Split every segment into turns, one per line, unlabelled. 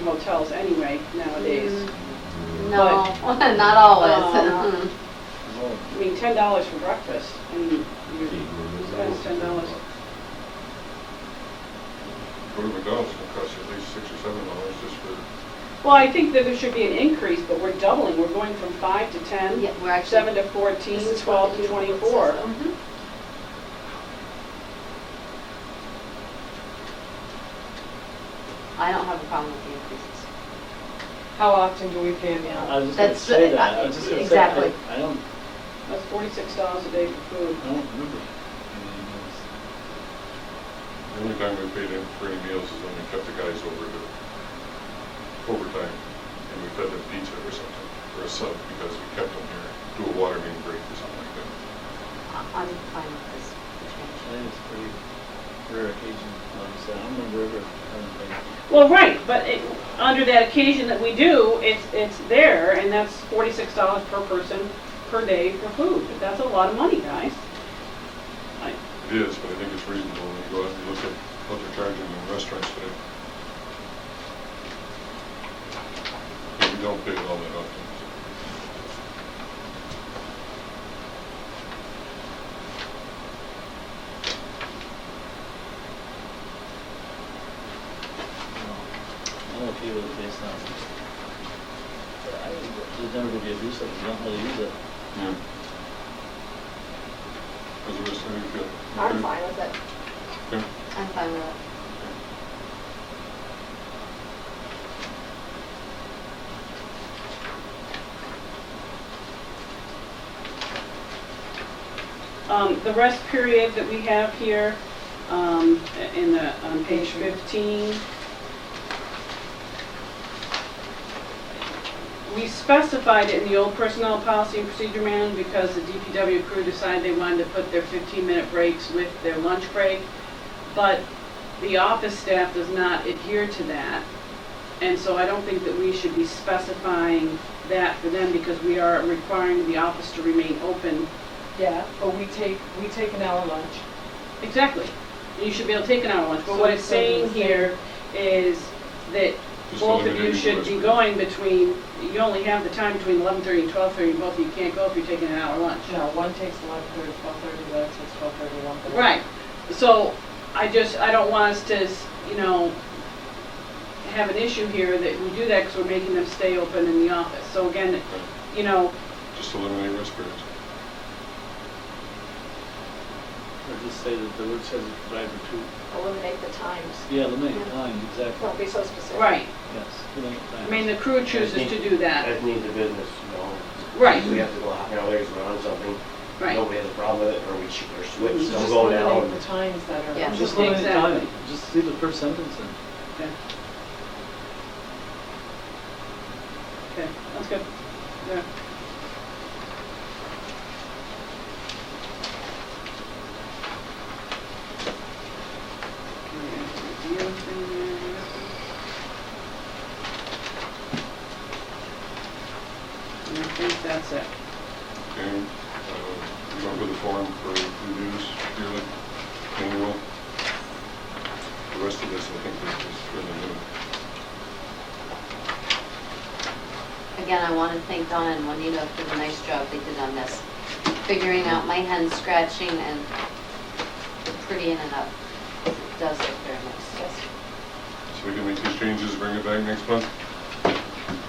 hotels anyway
Mm-hmm.
nowadays.
No, not always.
Um,
Oh,
I mean, ten dollars for breakfast, and you spend ten dollars.
Go to McDonald's, it'll cost you at least six or seven dollars just for,
Well, I think that there should be an increase, but we're doubling, we're going from five to ten,
Yeah, we're actually.
seven to fourteen,
This is
twelve
what
to
the uniform
twenty-four.
says, though. Mhm. I don't have a problem with the increases.
How often do we pay a meal?
I was just gonna
That's-
say that,
uh,
I was just gonna say,
exactly.
I- I don't,
That's forty-six dollars a day for food.
I don't remember. I
the only time we paid him for any meals is when we kept the guys over to overtime and we fed them pizza or something, or a sub, because we kept them here, do a water main break or something like that.
I- I'm fine with this change.
think it's pretty rare occasion, like I said, I don't remember ever having paid.
Well, right, but it, under that occasion that we do, it's, it's there, and that's forty-six dollars per person per day for food. That's a lot of money, guys. I-
It is, but I think it's reasonable when you go out and look at what they're charging in restaurants today. And We don't pay it all that often.
I don't know if you would taste that. But I think There's never gonna be a use of it, you don't really use it.
Yeah. How's the rest of you feel?
I'm
Okay?
fine with it.
Okay.
I'm fine with it.
Um, the rest period that we have here, um, in the, on page fifteen. We specified it in the old personnel policy and procedure manual because the DPW crew decided they wanted to put their fifteen-minute breaks with their lunch break. But the office staff does not adhere to that. And so I don't think that we should be specifying that for them because we are requiring the office to remain open
Yeah, but we take, we take an hour lunch.
Exactly. You should be able to take an hour lunch, but
So
what it's
it's
saying
gonna be the same.
here is that
Just
both of you
eliminating
should be
Westbrook.
going between, you only have the time between eleven thirty and twelve thirty, both of you can't go if you're taking an hour lunch.
No, one takes eleven thirty, twelve thirty, the other takes twelve thirty, one thirty.
Right, so I just, I don't want us to, you know, have an issue here that we do that because we're making them stay open in the office. So again, you know,
Just eliminate restaurants.
Or just say that the word says it provided for two,
Eliminate the times.
yeah, eliminate time, exactly,
Don't be so specific.
right,
yes, eliminate time.
I mean, the crew chooses to do that.
As needs of business, you know.
Right.
We have to go half an hour later to run something.
Right,
Nobody has a problem with it, or we shoot or switch,
Just
don't go
eliminate the
down.
times that are.
Yeah.
Just eliminate time,
Exactly.
just leave the first sentence in.
okay, that's good. Yeah. Nothing And I think that's it.
And, uh, go over the form for reviews, yearly, annual. The rest of this, I think, is just for the minute.
Again, I want to thank Donna and Juanita for the nice job they did on this, figuring out my hand scratching and prettying it up. It does look very nice.
Yes.
So we can make these changes, bring it back next month,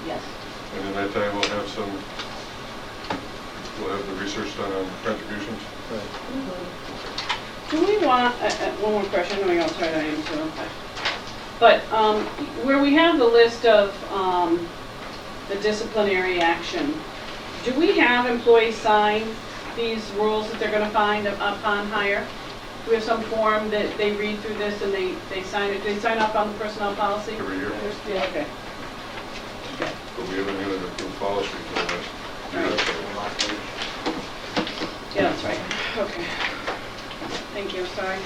Yes.
and in that time, we'll have some, we'll have the research done on contributions.
Right.
Do we want, uh, uh, one more question, I know I'm sorry, I am so, okay. but um, where we have the list of um, the disciplinary action, do we have employees sign these rules that they're going to find upon hire? Do we have some form that they read through this and they, they sign it, they sign up on the personnel policy?
Every year.
Yeah, okay. Okay.
But we haven't had an approved policy for that.
Yeah, that's right, okay. Thank you, sorry.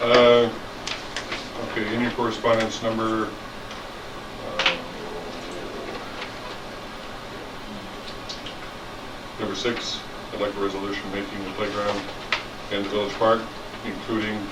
Uh, Okay, any correspondence number? uh, Number six, I'd like a resolution making the playground and the village park, including